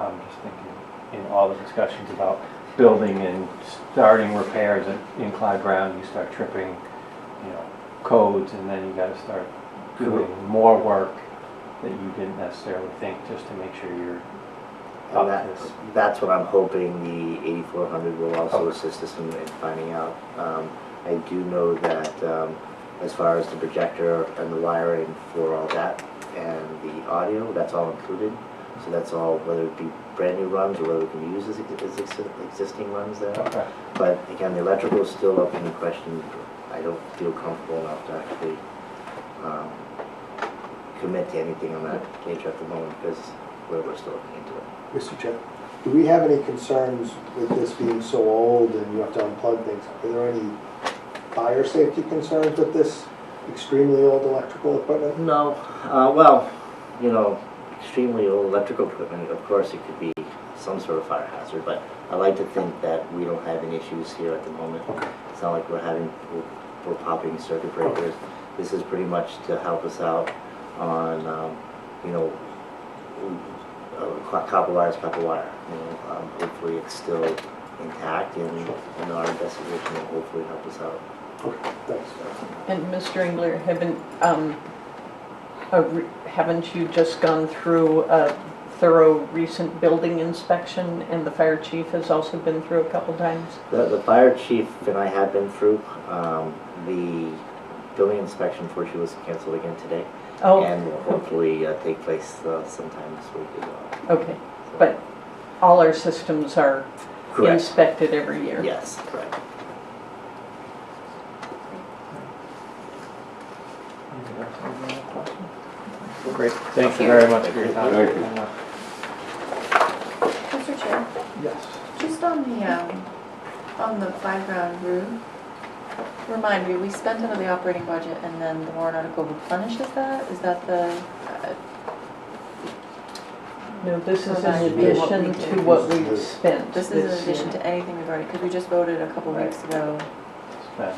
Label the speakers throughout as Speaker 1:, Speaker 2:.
Speaker 1: I'm just thinking, in all the discussions about building and starting repairs in- in Clyde Brown, you start tripping, you know, codes, and then you gotta start doing more work that you didn't necessarily think, just to make sure you're up
Speaker 2: And that,
Speaker 1: to s-
Speaker 2: that's what I'm hoping the eighty-four hundred will also
Speaker 1: Oh.
Speaker 2: assist us in, in finding out. Um, I do know that, um, as far as the projector and the wiring for all that and the audio, that's all included. So that's all, whether it be brand new runs or whether we can use as, as exi- existing runs there.
Speaker 1: Okay.
Speaker 2: But again, the electrical is still up in question. I don't feel comfortable enough to actually, um, commit to anything on that nature at the moment because we're, we're still looking into it.
Speaker 3: Mr. Chair, do we have any concerns with this being so old and you have to unplug things? Are there any fire safety concerns with this extremely old electrical equipment?
Speaker 2: No, uh, well, you know, extremely old electrical equipment, of course, it could be some sort of fire hazard, but I like to think that we don't have any issues here at the moment. It's not like we're having, we're- we're popping circuit breakers. This is pretty much to help us out on, um, you know, uh, co- copper wire is copper wire, you know, um, hopefully it's still intact and, and our investigation will hopefully help us out.
Speaker 3: Okay, thanks.
Speaker 4: And Mr. Engler, haven't, um, a re- haven't you just gone through a thorough recent building inspection and the fire chief has also been through a couple times?
Speaker 2: The, the fire chief and I have been through, um, the building inspection for she was canceled again today.
Speaker 4: Oh,
Speaker 2: And will hopefully uh, take place uh, sometime this week as well.
Speaker 4: okay, but all our systems are
Speaker 2: Correct,
Speaker 4: inspected every year?
Speaker 2: yes, correct.
Speaker 1: Great, thank you very much for your time.
Speaker 5: Thank you.
Speaker 6: Mr. Chair,
Speaker 1: Yes.
Speaker 6: just on the, um, on the playground roof, remind me, we spent out of the operating budget and then the warrant article replenishes that? Is that the, uh,
Speaker 4: No, this is in
Speaker 6: Well, that would be what we
Speaker 4: addition
Speaker 6: did.
Speaker 4: to what we've spent
Speaker 6: this is in
Speaker 4: this
Speaker 6: addition
Speaker 4: year.
Speaker 6: to anything we've already, because we just voted a couple weeks ago.
Speaker 1: Then-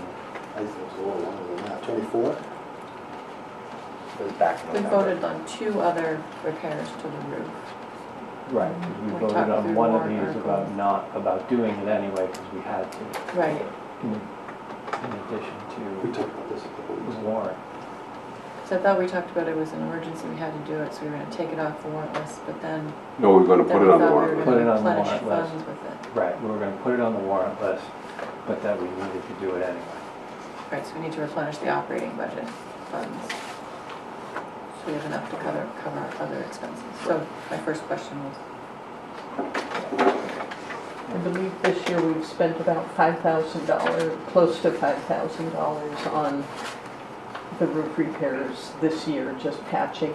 Speaker 3: I think it's a little longer than that, twenty-four?
Speaker 2: It was back in
Speaker 6: We
Speaker 2: November.
Speaker 6: voted on two other repairs to the roof.
Speaker 1: Right, 'cause we
Speaker 6: We
Speaker 1: voted
Speaker 6: talked
Speaker 1: on
Speaker 6: through
Speaker 1: one of
Speaker 6: warrant
Speaker 1: these about
Speaker 6: articles.
Speaker 1: not, about doing it anyway, because we had to,
Speaker 6: Right.
Speaker 1: in in addition
Speaker 3: We talked about this a couple
Speaker 1: to
Speaker 3: weeks
Speaker 1: the
Speaker 3: ago.
Speaker 1: warrant.
Speaker 6: So I thought we talked about it was an emergency, we had to do it, so we were gonna take it off the warrant list, but then,
Speaker 5: No, we're gonna
Speaker 6: then
Speaker 5: put
Speaker 6: we
Speaker 5: it on the
Speaker 6: thought we were
Speaker 5: warrant.
Speaker 1: Put it
Speaker 6: gonna
Speaker 1: on the
Speaker 6: replenish
Speaker 1: warrant list.
Speaker 6: funds with it.
Speaker 1: Right, we were gonna put it on the warrant list, but that we needed to do it anyway.
Speaker 6: Right, so we need to replenish the operating budget funds. So we have enough to cover, cover our other expenses. So my first question was,
Speaker 4: I believe this year we've spent about $5,000, close to $5,000 on the roof repairs this year, just patching.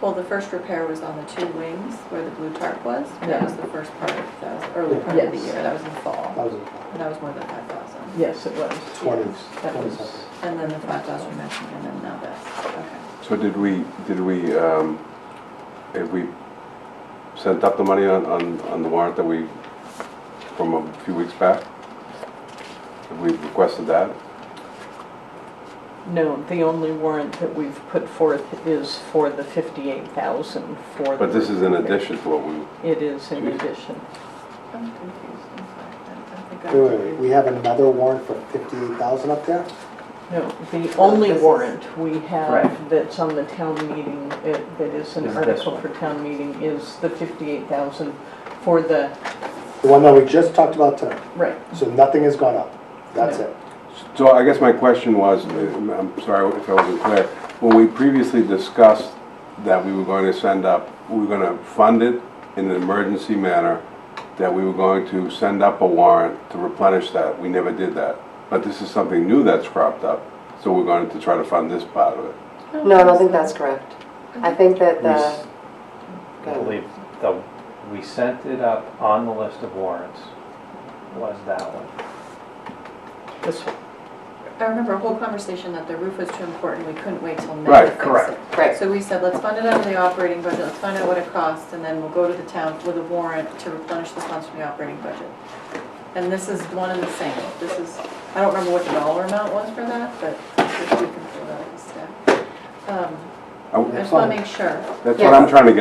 Speaker 6: well, the first repair was on the two wings where the blue tarp was. That was the first part, of- that was early part of the
Speaker 4: Yes.
Speaker 6: year, that was in fall.
Speaker 3: Thousand,
Speaker 6: And that was more than five thousand.
Speaker 4: Yes, it was.
Speaker 3: twenty,
Speaker 4: That
Speaker 3: twenty
Speaker 4: was,
Speaker 3: something.
Speaker 6: And then the five thousand you mentioned, and then now this, okay.
Speaker 5: So did we, did we, um, have we sent up the money on, on, on the warrant that we, from a few weeks back? Have we requested that?
Speaker 4: No, the only warrant that we've put forth is for the 58,000 for the.
Speaker 5: But this is in
Speaker 4: roof repair.
Speaker 5: addition to what we,
Speaker 4: It is in addition.
Speaker 6: I'm confused, I'm sorry. I don't think I-
Speaker 3: Wait, wait, wait, we have another warrant for fifty-eight thousand up there?
Speaker 4: No, the only
Speaker 6: this is-
Speaker 4: warrant we have
Speaker 1: Right.
Speaker 4: that's on the town meeting, uh, that is an
Speaker 1: Is this
Speaker 4: article
Speaker 1: one.
Speaker 4: for town meeting, is the 58,000 for the,
Speaker 3: The one that we just talked about tonight,
Speaker 4: right,
Speaker 3: so nothing has gone up, that's it.
Speaker 5: so I guess my question was, uh, I'm sorry if I wasn't clear, when we previously discussed that we were going to send up, we were gonna fund it in an emergency manner, that we were going to send up a warrant to replenish that, we never did that. But this is something new that's cropped up, so we're going to try to fund this part of it.
Speaker 7: No, I don't think that's correct. I think that
Speaker 5: We s-
Speaker 7: the,
Speaker 1: I believe the, we sent it up on the list of warrants, was that one.
Speaker 4: this one.
Speaker 6: I remember a whole conversation that the roof was too important, we couldn't wait till May
Speaker 5: Right,
Speaker 6: to fix it.
Speaker 1: correct.
Speaker 7: Right.
Speaker 6: So we said, let's fund it out of the operating budget, let's find out what it costs, and then we'll go to the town with a warrant to replenish the funds from the operating budget. And this is one and the same, this is, I don't remember what the dollar amount was for that, but we can pull that out of the stack. Um, I
Speaker 5: I-
Speaker 6: just wanna make sure.
Speaker 5: That's what I'm trying to get